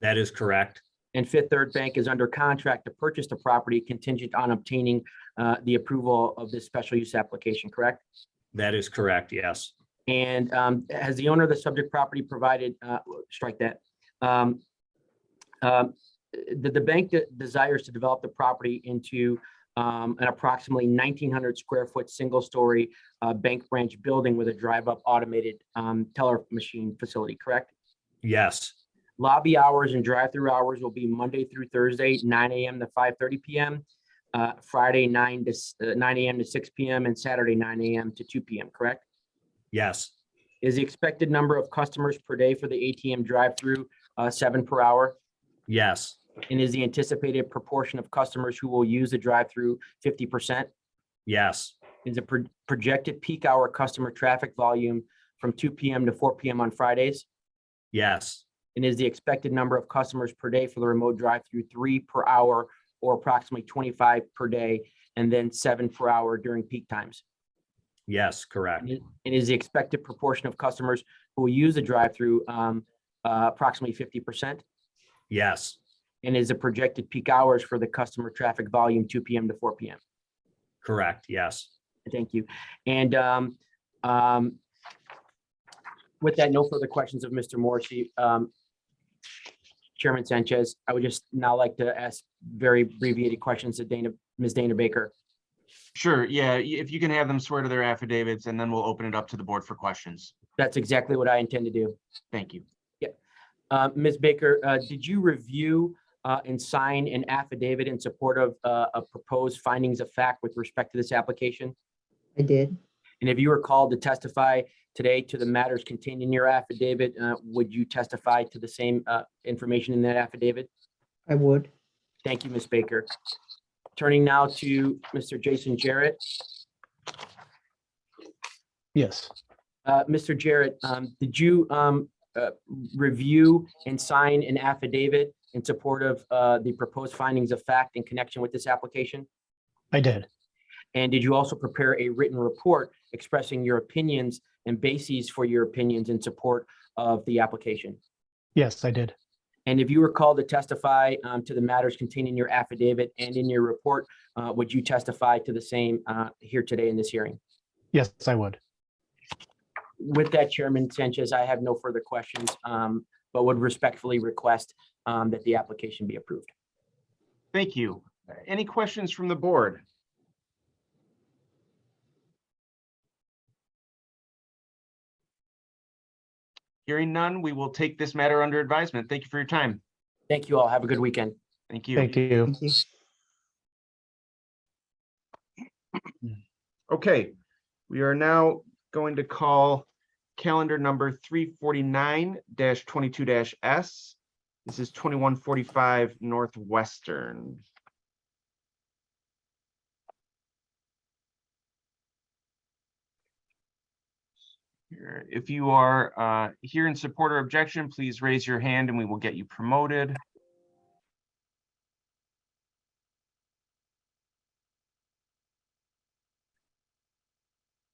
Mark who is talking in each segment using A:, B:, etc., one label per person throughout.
A: That is correct.
B: And Fifth Third Bank is under contract to purchase the property contingent on obtaining uh, the approval of this special use application, correct?
A: That is correct, yes.
B: And um, has the owner of the subject property provided, uh, strike that. um, um, The, the bank de- desires to develop the property into um, an approximately 1,900 square foot, single-story uh, bank branch building with a drive-up automated um, teller machine facility, correct?
A: Yes,
B: Lobby hours and drive-through hours will be Monday through Thursday, nine AM to five thirty PM. uh, Friday, nine to, s- uh, nine AM to six PM and Saturday, nine AM to two PM, correct?
A: yes,
B: Is the expected number of customers per day for the ATM drive-through, uh, seven per hour?
A: yes,
B: And is the anticipated proportion of customers who will use the drive-through fifty percent?
A: yes,
B: Is the pro- projected peak hour customer traffic volume from two PM to four PM on Fridays?
A: yes,
B: And is the expected number of customers per day for the remote drive-through three per hour or approximately twenty-five per day and then seven per hour during peak times?
A: yes, correct.
B: And is- and is the expected proportion of customers who will use the drive-through um, uh, approximately fifty percent?
A: Yes,
B: And is the projected peak hours for the customer traffic volume two PM to four PM?
A: correct, yes,
B: Thank you. And um, um, with that, no further questions of Mr. Morrissey. Um, Chairman Sanchez, I would just now like to ask very abbreviated questions to Dana, Ms. Dana Baker.
C: Sure, yeah, y- if you can have them swear to their affidavits and then we'll open it up to the board for questions.
B: That's exactly what I intend to do.
C: Thank you.
B: Uh, Ms. Baker, uh, did you review uh, and sign an affidavit in support of uh, a proposed findings of fact with respect to this application?
D: I did.
B: And if you were called to testify today to the matters contained in your affidavit, uh, would you testify to the same uh, information in that affidavit?
D: I would.
B: Thank you, Ms. Baker. Turning now to Mr. Jason Jarrett.
E: Yes,
B: Uh, Mr. Jarrett, um, did you um, uh, review and sign an affidavit in support of uh, the proposed findings of fact in connection with this application?
E: I did.
B: And did you also prepare a written report expressing your opinions and bases for your opinions in support of the application?
E: Yes, I did.
B: And if you were called to testify um, to the matters contained in your affidavit and in your report, uh, would you testify to the same uh, here today in this hearing?
E: Yes, I would.
B: With that, Chairman Sanchez, I have no further questions, um, but would respectfully request um, that the application be approved.
C: Thank you. Uh, Any questions from the board? Hearing none, we will take this matter under advisement. Thank you for your time.
B: Thank you all. Have a good weekend.
C: Thank you.
E: Thank you.
D: Thank you.
C: Okay, we are now going to call calendar number three forty-nine twenty-two S. This is twenty-one forty-five Northwestern. Here, If you are uh, here in support or objection, please raise your hand and we will get you promoted.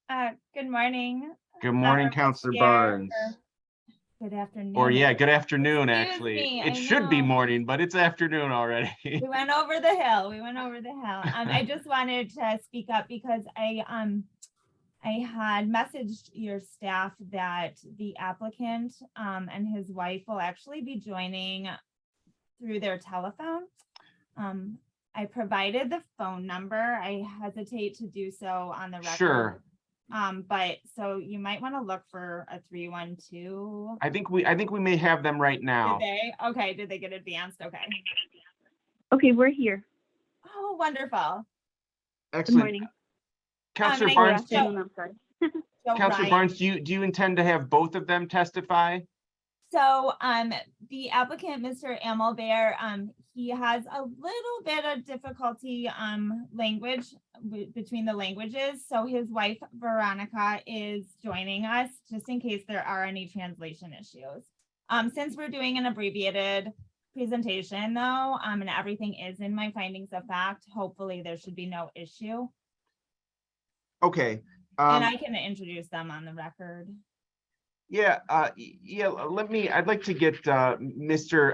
F: Uh, good morning.
C: Good morning,
F: Uh,
C: Counselor
F: yeah,
C: Barnes.
F: or Good afternoon.
C: Or yeah, good afternoon,
F: Excuse
C: actually.
F: me, I
C: It should be
F: know.
C: morning, but it's afternoon already.
F: We went over the hill. We went over the hill. Um, I just wanted to speak up because I, um, I had messaged your staff that the applicant, um, and his wife will actually be joining through their telephone. Um, I provided the phone number. I hesitate to do so on the record.
C: Sure.
F: Um, but so you might want to look for a three one two.
C: I think we, I think we may have them right now.
F: Did they? Okay, did they get advanced? Okay.
G: Okay, we're here.
F: Oh, wonderful.
G: Good
C: Excellent.
G: morning.
C: Counselor
F: Um,
G: Or
F: Thank
C: Barnes,
F: you.
C: do-
G: afternoon, I'm sorry.
F: So
C: Counselor
F: Ryan-
C: Barnes, do you, do you intend to have both of them testify?
F: So, um, the applicant, Mr. Amelbear, um, he has a little bit of difficulty, um, language w- between the languages. So his wife Veronica is joining us just in case there are any translation issues. Um, since we're doing an abbreviated presentation though, um, and everything is in my findings of fact, hopefully there should be no issue.
C: Okay. Um,
F: And I can introduce them on the record.
C: yeah, uh, y- yeah, let me, I'd like to get, uh, Mr.